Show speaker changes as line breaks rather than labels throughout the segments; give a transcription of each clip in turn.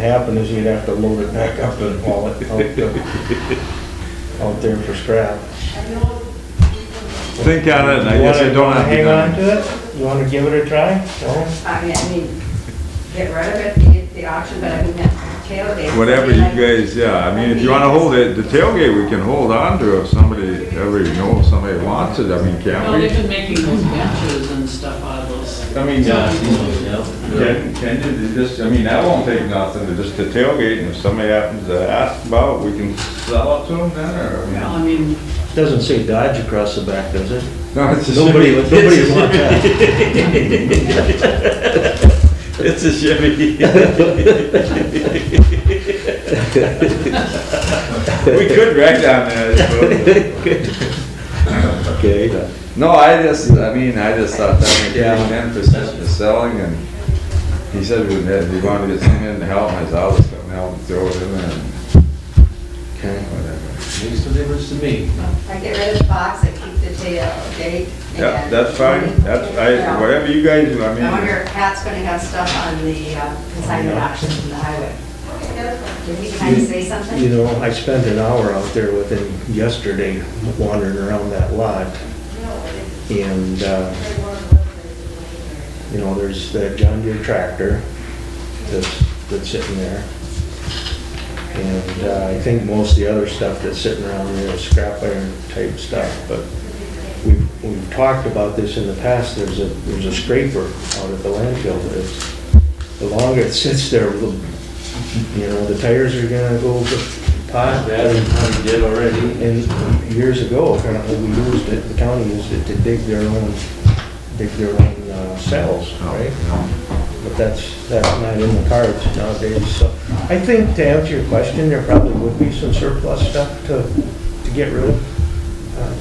Happen is you'd have to load it back up and haul it out to- out there for scrap.
Think on it, and I guess I
You
don't
wanna-
have to.
Hang on to it? You wanna give it a try? No?
I mean, I mean, get rid of it, the, the auction, but I mean, that tailgate.
Whatever you guys, yeah, I mean, if you wanna hold it, the tailgate, we can hold on to if somebody, ever, you know, if somebody wants it, I mean,
Well, they've
can't
been making those benches and stuff out of those.
we? I mean, uh,
Yeah.
Can, can you just, I mean, that won't take nothing, to just the tailgate, and if somebody happens to ask about, we can sell it to them then, or? I mean-
Well, I mean,
Doesn't say Dodge across the back, does it?
No, it's a
Nobody, would-
Chevy.
nobody would want that.
It's a Chevy.
We could wreck down there, I suppose.
Okay.
No, I just, I mean, I just thought that would be
Yeah.
ten percent for selling, and he said we had, he wanted to get someone in to help, and I said, I'll just come help and throw it in there. and
Okay.
whatever.
Makes no difference to me.
I get rid of the box, I keep the tailgate.
Yeah,
and-
that's fine, that's, I,
Yeah.
whatever you guys, do, I
I wonder
mean,
if Pat's gonna have stuff on the uh, consignment auction from the highway. Did he kind of say
You
something?
know, I spent an hour out there with him yesterday wandering around that lot. And, uh, you know, there's that John Deere tractor that's, that's sitting there. And uh, I think most of the other stuff that's sitting around there is scrap iron type stuff, but we've, we've talked about this in the past, there's a, there's a scraper out at the landfill that is, the longer it sits there, the- you know, the tires are gonna go pot.
That we probably did already.
And years ago, apparently, we used it, the county used it to dig their own, dig their own uh, cells, right? But that's, that's not in the cards nowadays, so. I think to answer your question, there probably would be some surplus stuff to, to get rid of. Uh,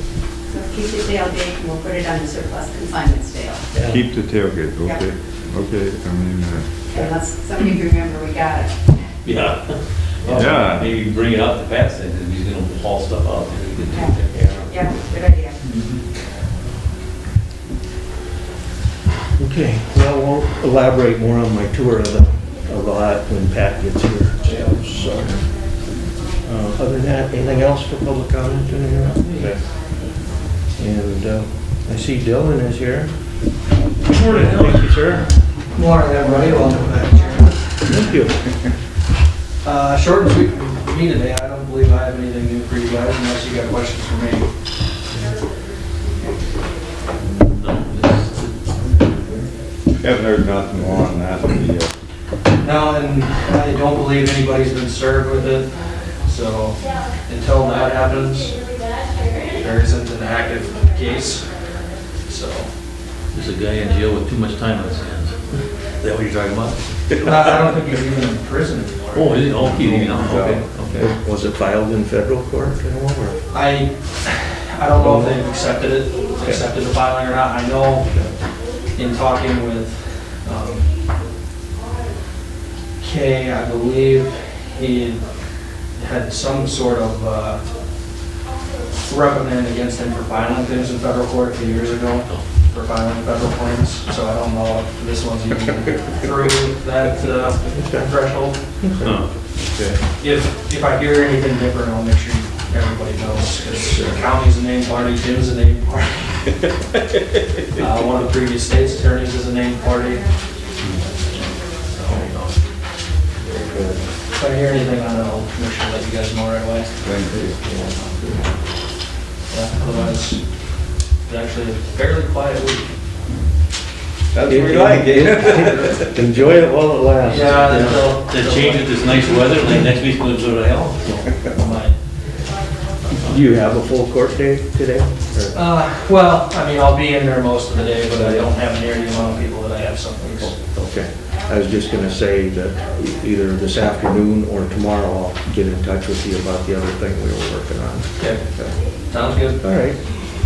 So keep the tailgate and we'll put it on the surplus consignment sale.
yeah.
keep the tailgate,
Yeah.
okay, okay, I mean, uh,
Unless somebody can remember we got it.
Yeah.
Yeah.
Maybe you can bring it out to Pat's and he's gonna haul stuff out there. We can take
Yeah.
that.
Yeah, good idea.
Okay, well, we'll elaborate more on my tour of the, of the lot when Pat gets here, so. uh, Other than that, anything else for public comment in here? And uh, I see Dylan is here. Good morning, Thank you, sir.
Morning, everybody, welcome back, Chairman.
Thank you.
Uh, Short and sweet for me today, I don't believe I have anything new for you guys unless you got questions for me.
haven't heard nothing more on that, the, uh,
No, and I don't believe anybody's been served with it, so until that happens, there isn't an active case, so.
There's a guy in jail with too much time on his hands. Is that what you're talking about?
I I don't think he's even in prison anymore.
Oh, is it? Oh, he- you know, okay, okay.
Was it filed in federal court at all, or?
I, I don't know if they've accepted it, accepted the filing or not. I know in talking with um, Kay, I believe he had some sort of uh, reprimand against him for filing things in federal court a few years ago, for filing federal claims. So I don't know if this one's even through that uh, threshold. If, if I hear anything different, I'll make sure everybody knows, because the county's a named party, Jim's a named party. Uh, one of the previous state's attorneys is a named party. So, If I hear anything, on it, I'll make sure that you guys know right away.
thank you.
Yeah, Otherwise, it's actually a fairly quiet week.
That's what we like, eh?
Enjoy it while it lasts.
they'll-
They changed it this nice weather, like next week's gonna go to hell.
Might.
Do you have a full court day today? or-
Uh, well, I mean, I'll be in there most of the day, but I don't have near the amount of people that I have some weeks.
Okay, I was just gonna say that e- either this afternoon or tomorrow, I'll get in touch with you about the other thing we were working on.
Okay, sounds good.
All right.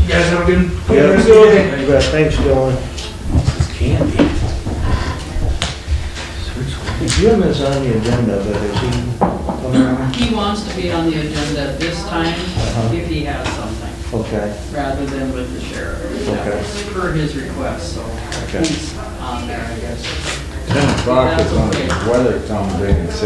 You guys have a good.
Yeah,
rest of your day.
you bet. Thanks, Dylan.
It's candy.
Jim is on the agenda, but is he coming on?
He wants to be on the agenda at this time
Uh-huh.
if he has something,
Okay,
rather than with the sheriff.
Okay.
For his request, so
Okay.
he's on there, I guess.
Ten o'clock is on the weather, Tom, they can say.